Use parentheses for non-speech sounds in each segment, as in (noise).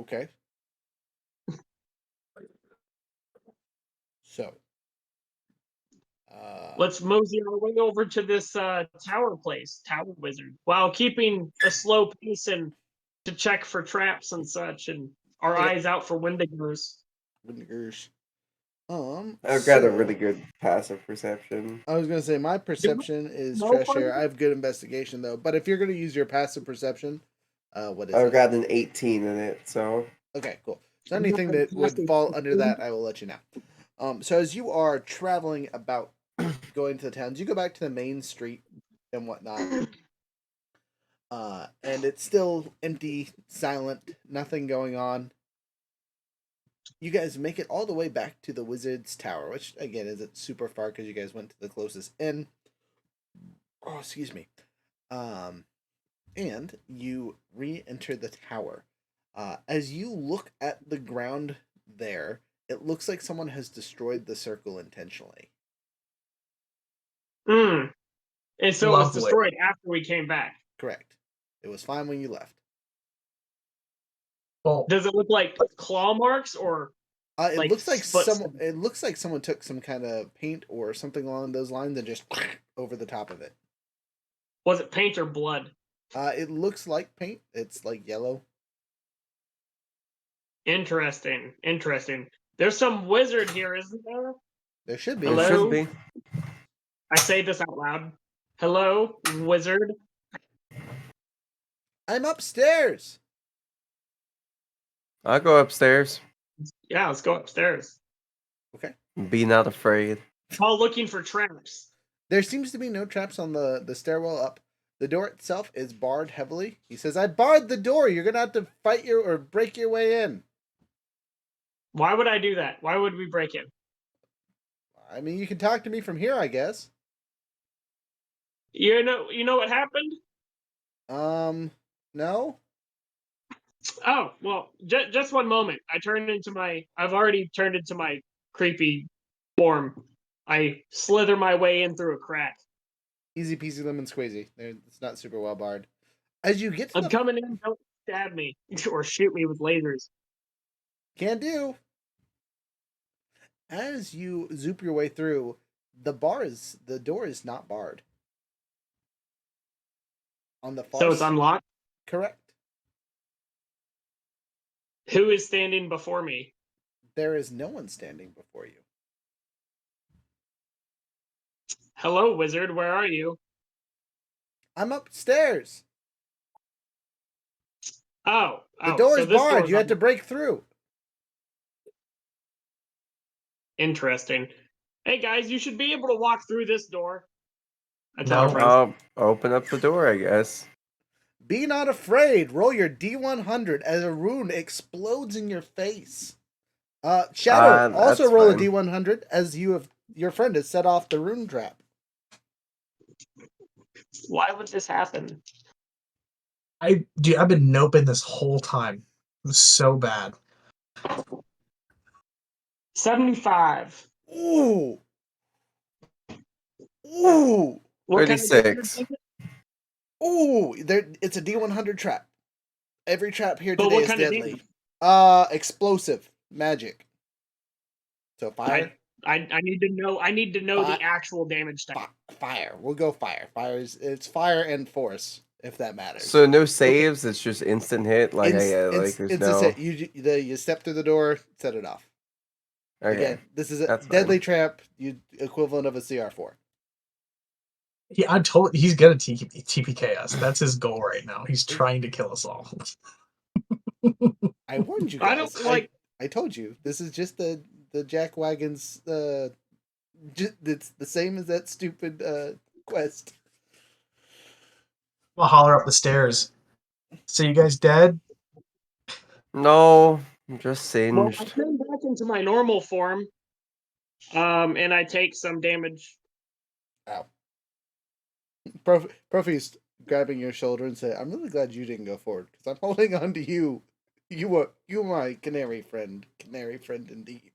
Okay. So. Uh, Let's mosey our way over to this uh, tower place, Tower Wizard, while keeping a slow pace and to check for traps and such, and our Yeah. eyes out for Wendigos. Windigers. Um, I've got a so- really good passive perception. I was gonna say my perception is no trash one- air. I have good investigation though, but if you're gonna use your passive perception, uh, what is it? I've got an 18 in it, so Okay, cool. So I'm not anything that would (laughs) exactly fall under certain. that, I will let you know. Um, so as you are traveling about, (clears throat) going to the towns, you go back to the main street and whatnot, uh, and it's still empty, silent, nothing going on. You guys make it all the way back to the Wizard's Tower, which again isn't super far because you guys went to the closest inn. Oh, excuse me. Um, and you re-enter the tower. Uh, as you look at the ground there, it looks like someone has destroyed the circle intentionally. Mm. And so it was Lovely. destroyed after we came back. Correct. It was fine when you left. Well, Does it look like claw marks or Uh, it Like, looks like foot- some. It looks like someone took some kind of paint or something along those lines and just (sniffs) over the top of it. was it paint or blood? Uh, it looks like paint. It's like yellow. Interesting. Interesting. There's some wizard here, isn't there? There should be. it Hello? should be. I say this out loud. Hello, wizard. I'm upstairs. I'll go upstairs. Yeah, let's go upstairs. Be not afraid. While looking for traps. There seems to be no traps on the the stairwell up. The door itself is barred heavily. He says, "I barred the door. You're gonna have to fight your or break your way in." Why would I do that? Why would we break it? I mean, you can talk to me from here, I guess. You know, you know what happened? Um, no. Oh, well, j- just one moment. I turned into my. I've already turned into my creepy form. I slither my way in through a crack. Easy peasy lemon squeezy. There, it's not super well barred. As you get to I'm the coming in. Don't stab me (laughs) or shoot me with lasers. can do. As you zoop your way through, the bar is the door is not barred. On the far So it's s- unlocked. correct. Who is standing before me? There is no one standing before you. Hello, wizard. Where are you? I'm upstairs. Oh, The oh, door so is this barred. door's you have to un- break through. Interesting. Hey guys, you should be able to walk through this door. I tell No. our Oh, friends. I'll open up the door, I guess. Be not afraid. Roll your D100 as a rune explodes in your face. Uh, Shadow, Uh, also that's roll fine. a D100 as you have your friend has set off the rune trap. Why would this happen? I dude, I've been noping this whole time. It was so bad. 75. Ooh. Ooh. What kind of 36. damage is it? Ooh. There it's a D100 trap. Every trap here But today what is kind of deadly. damage? Uh explosive magic. So fire. I, I need to know I need to know Fi- the actual damage type. Fi- fire. We'll go fire. Fire is it's fire and force if that matters. So no saves. It's just instant hit. Like, Ins- I, uh, like ins- there's it's a no. set. You ju- the, you step through the door, set it off. Okay. Again, this is a that's fine. deadly trap. You equivalent of a CR four. Yeah, I'm told he's gonna T- TPK us. That's his goal right now. He's trying to kill us all. (laughs) I warned you. Guys. (laughs) I don't like I, told you. This is just the the jack wagons. Uh, ju- it's the same as that stupid uh quest. I'll holler up the stairs. So you guys dead? (laughs) No, I'm just well, I singed. turn back into my normal form. Um and I take some damage. Prof, Profi's grabbing your shoulder and say, "I'm really glad you didn't go forward because I'm (laughs) holding on to you. You were you were my canary friend, canary friend indeed."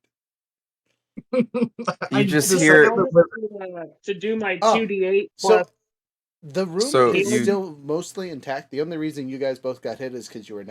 I just decided hear- to live- Uh, to do my Oh, 2d8 So plus the room So is you- still mostly intact. The only reason you guys both got hit is because you were